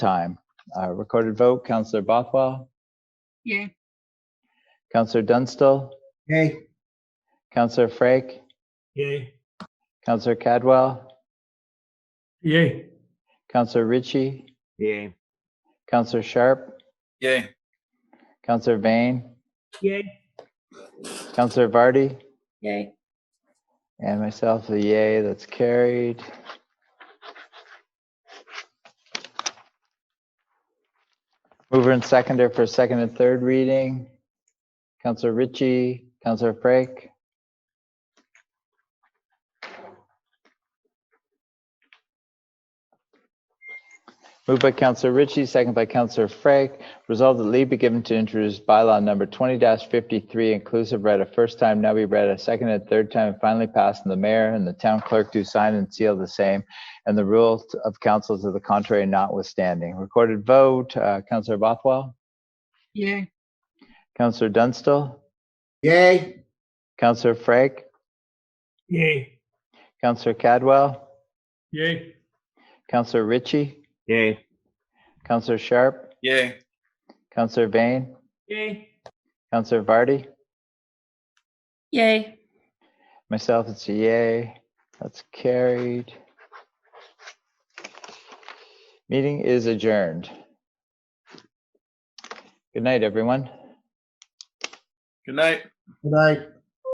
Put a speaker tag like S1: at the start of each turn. S1: time. Uh, Recorded vote, Counselor Bothwell,
S2: Yeah.
S1: Counselor Dunstall,
S3: Yay.
S1: Counselor Frake,
S3: Yay.
S1: Counselor Cadwell,
S3: Yay.
S1: Counselor Ritchie,
S3: Yay.
S1: Counselor Sharp,
S4: Yay.
S1: Counselor Vane,
S3: Yay.
S1: Counselor Vardy,
S2: Yay.
S1: and myself, the yay that's carried. Mover and seconder for second and third reading. Counselor Ritchie, Counselor Frake, Moved by Counselor Ritchie, second by Counselor Frank. Resolved that leave be given to introduce bylaw number twenty fifty-three inclusive read a first time, now be read a second and third time, and finally passed, and the mayor and the town clerk do sign and seal the same, and the rule of council to the contrary notwithstanding. Recorded vote, uh, Counselor Bothwell,
S2: Yeah.
S1: Counselor Dunstall,
S3: Yay.
S1: Counselor Frank,
S3: Yay.
S1: Counselor Cadwell,
S3: Yay.
S1: Counselor Ritchie,
S3: Yay.
S1: Counselor Sharp,
S4: Yay.
S1: Counselor Vane,
S3: Yay.
S1: Counselor Vardy,
S2: Yay.
S1: Myself, it's a yay. That's carried. Meeting is adjourned. Good night, everyone.
S4: Good night.
S3: Good night.